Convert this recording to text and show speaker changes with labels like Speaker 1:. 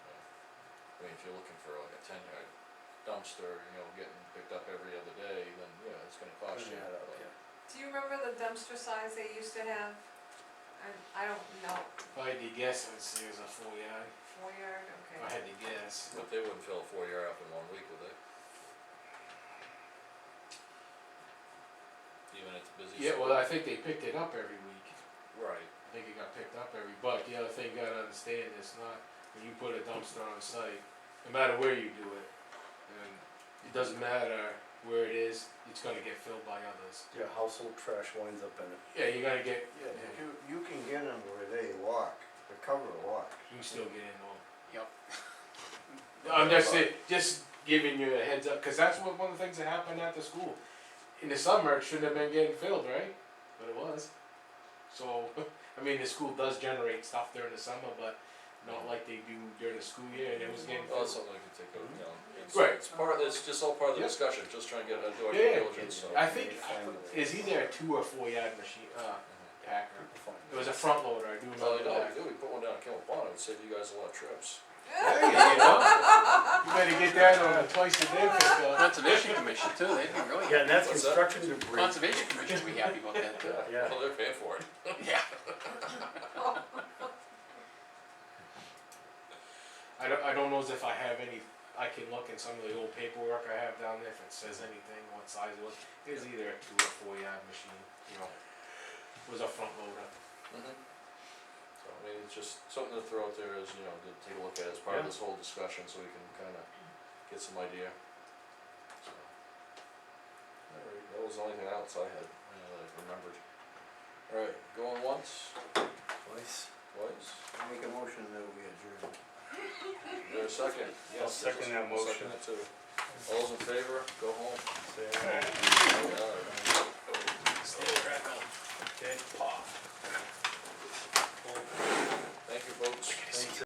Speaker 1: I mean, if you're looking for like a ten yard dumpster, you know, getting picked up every other day, then yeah, it's gonna cost you,
Speaker 2: Cleaning that up,
Speaker 1: but-
Speaker 2: yeah.
Speaker 3: Do you remember the dumpster size they used to have? I, I don't know,
Speaker 4: If I had to guess, I'd say it was a four yard,
Speaker 3: four yard,
Speaker 4: if
Speaker 3: okay.
Speaker 4: I had to guess.
Speaker 1: But they wouldn't fill a four yard up in one week, would they? Even at the busy.
Speaker 4: Yeah, well, I think they picked it up every week,
Speaker 1: Right,
Speaker 4: I think it got picked up every, but the other thing you gotta understand, is not, when you put a dumpster on site, no matter where you do it, and it doesn't matter where it is, it's gonna get filled by others.
Speaker 2: Your household trash winds up in it.
Speaker 4: Yeah, you're gonna get,
Speaker 5: Yeah, but you, you can get them where they lock, the cover locks.
Speaker 4: you can still get in on.
Speaker 2: Yep.
Speaker 4: I'm just saying, just giving you a heads up, cause that's what, one of the things that happened at the school. In the summer, it shouldn't have been getting filled, right? But it was. So, I mean, the school does generate stuff during the summer, but not like they do during the school year, and it was getting
Speaker 1: well, that's
Speaker 4: filled.
Speaker 1: something we could take over,
Speaker 2: Mm-hmm.
Speaker 1: you know, it's,
Speaker 4: Right.
Speaker 1: it's part, it's just all part of the
Speaker 4: Yep.
Speaker 1: discussion, just trying to get a door
Speaker 4: Yeah, yeah,
Speaker 1: diligence, so.
Speaker 4: I think, I put- is either a two or four yard machine, uh, packer. It was a front loader, I do
Speaker 1: Well, you Oh,
Speaker 4: remember
Speaker 1: know,
Speaker 4: that.
Speaker 1: we do, we put one down at Kimball Pond, it would save you guys a lot of trips.
Speaker 4: There you go. You better get that on a twice a day pickup.
Speaker 6: Conservation Commission too, they'd be really,
Speaker 2: Yeah, and that's
Speaker 1: What's that?
Speaker 2: construction debris.
Speaker 6: Conservation Commission would be happy about that too.
Speaker 2: Yeah.
Speaker 1: Well, they're paying for it.
Speaker 6: Yeah.
Speaker 4: I don't, I don't know as if I have any, I can look in some of the old paperwork I have down there if it says anything, what size it was. It was either a two or four yard machine, you know, it was a front loader.
Speaker 1: Mhm. So, I mean, it's just something to throw out there as, you know, to take a look at as part of
Speaker 4: Yeah.
Speaker 1: this whole discussion, so we can kinda get some idea, so. Alright, that was the only thing else I had, you know, that I remembered. Alright, going once,
Speaker 2: Twice.
Speaker 1: twice,
Speaker 2: Make a motion that we adjourn.
Speaker 1: is there a second?
Speaker 2: Yeah, second that
Speaker 1: Second it too. All those in favor, go home.
Speaker 2: Say aye.
Speaker 1: Yeah, alright.